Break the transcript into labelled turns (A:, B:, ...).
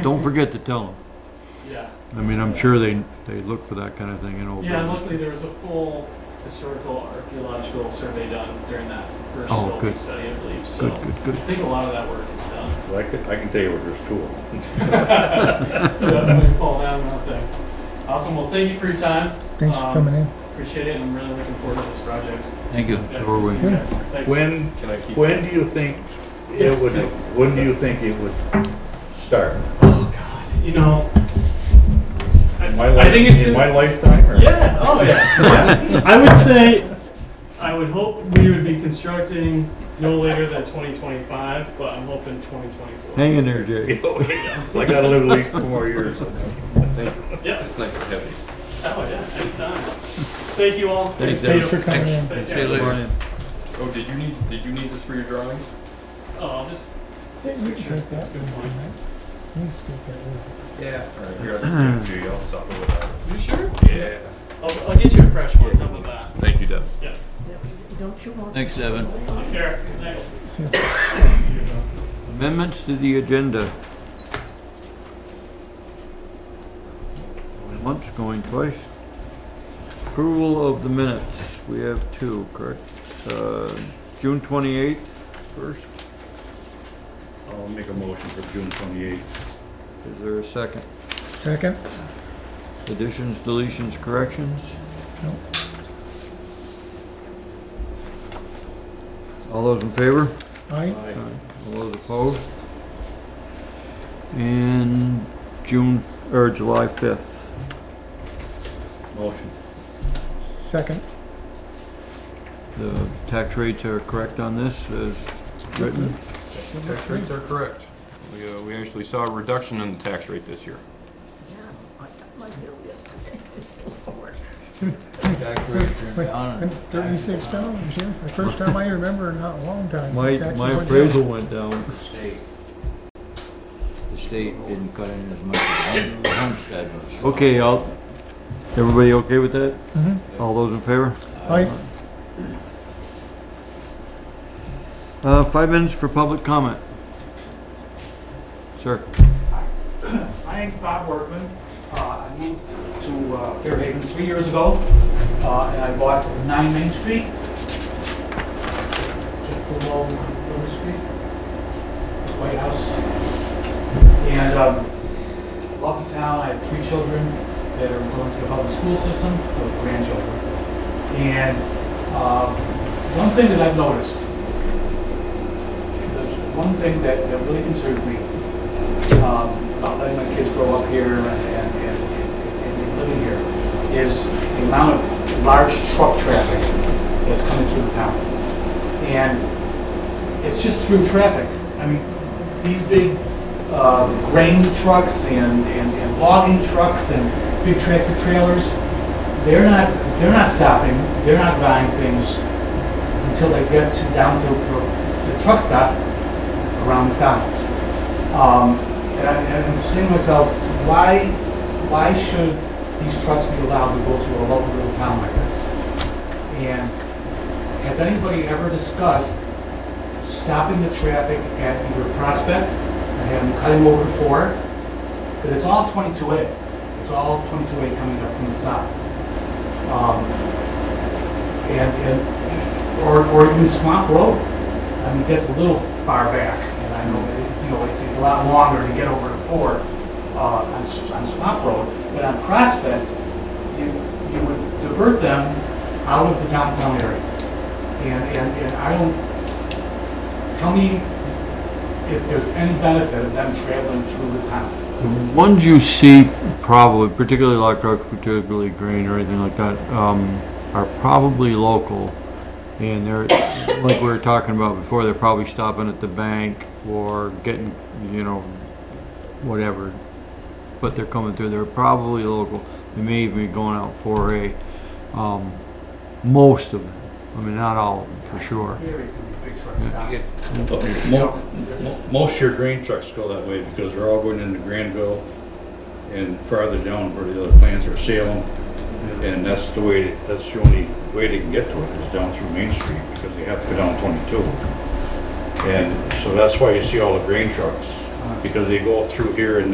A: Don't forget to tell them.
B: Yeah,
A: I mean, I'm sure they, they look for that kind of thing in old
B: yeah, and
A: buildings.
B: luckily there was a full historical archaeological survey done during that first
A: Oh,
B: building
A: good.
B: study, I believe. So
A: Good, good, good.
B: I think a lot of that work is done.
C: Well, I could, I can tell you where there's two of them.
B: yeah, we fall down one thing. Awesome. Well, thank you for your time.
D: Thanks for
B: Um,
D: coming in.
B: Appreciate it, and I'm really looking forward to this project.
A: Thank you.
B: Yeah,
A: So are we.
B: see you guys. Thanks.
C: When,
E: Can I keep?
C: when do you think it
B: Yes.
C: would, when do you think it would start?
B: Oh God, you know, I,
C: In my
B: I think
C: life-
B: it's
C: In
B: in-
C: my lifetime or?
B: Yeah. Oh yeah. I would say, I would hope we would be constructing no later than 2025, but I'm hoping 2024.
A: Hang in there, Jay.
C: I gotta live at least two more years.
E: Thank you.
B: Yeah.
E: It's nice to have these.
B: Oh yeah. Anytime. Thank you all.
E: Thanks,
D: Thanks for coming in.
B: Thank
E: See you
B: you.
E: later.
A: Brian.
E: Oh, did you need, did you need this for your drawing?
B: Oh, I'll just
D: Yeah, you can take
B: That's
D: that.
B: a good point.
D: You just take that one.
E: Yeah. All right, here, I'll just give it to you, I'll suffer without
B: You sure?
E: it. Yeah.
B: I'll, I'll get you a fresh one. How about that?
E: Thank you, Deb.
B: Yeah.
F: Don't you want?
A: Thanks, Evan.
B: Take care. Thanks.
D: See,
A: Amendments to the agenda. Going Once, going twice. Approval of the minutes. We have two, correct? Uh, June twenty-eighth, first.
C: I'll make a motion for June twenty-eighth.
A: Is there a second?
D: Second?
A: Additions, deletions, corrections?
D: No.
A: All those in favor?
D: Aye.
A: All those opposed? And June, or July 5th.
C: Motion.
D: Second.
A: The tax rates are correct on this as written.
E: Tax rates are correct. We, uh, we actually saw a reduction in the tax rate this year.
F: Yeah, I got my bill yesterday. It's Lord.
E: Tax rates
D: Wait, Thirty-six dollars, yes. The first time I remember in a long time.
A: My,
D: Taxes
A: my
D: went down.
A: appraisal went down.
G: The state didn't cut in as much as the homestead was.
A: Okay, I'll, everybody okay with that?
D: Mhm.
A: All those in favor?
D: Aye.
A: Uh, five minutes for public comment. Sir?
H: My name's Bob Workman. Uh, I moved to uh, Fairhaven three years ago, uh, and I bought 9 Main Street, just below Main Street, White House. And um, love the town. I have three children that are going to the public school system, or grandchildren. And um, one thing that I've noticed, there's one thing that that really concerns me, um, about letting my kids grow up here and, and, and, and and living here is the amount of large truck traffic that's coming through the town. And it's just through traffic. I mean, these big, uh, grain trucks and, and, and logging trucks and big tractor trailers, they're not, they're not stopping, they're not buying things until they get to, down to the- the truck stop around the downs. Um, and I- and I'm saying to myself, why, why should these trucks be allowed to go through a local little town like this? And has anybody ever discussed stopping the traffic at either Prospect and having them cut them over to four? Because it's all 22A. It's all 22A coming up from the south. Um, And, and, or, or even Swamp Road. I mean, that's a little far back, and I know, that, you know, it's, it's a lot longer to get over to Ford, uh, on, S- on Swamp Road, but on Prospect, you, you would divert them out of the downtown area. And, and, and I don't, tell me if there's any benefit of them traveling through the town.
A: The ones you see probably, particularly like trucks, particularly grain or anything like that, um, are probably local. And they're, like we were talking about before, they're probably stopping at the bank or getting, you know, whatever. But they're coming through, they're probably local. They may even be going out for a, um, most of them. I mean, not all of them, for sure.
H: Very big truck stop.
C: Mo- mo- Most of your grain trucks go that way because they're all going into Granville and farther down where the other plants are Salem. And that's the way, that's the only way they can get to it is down through Main Street because they have to go down 22. And so that's why you see all the grain trucks, because they go through here and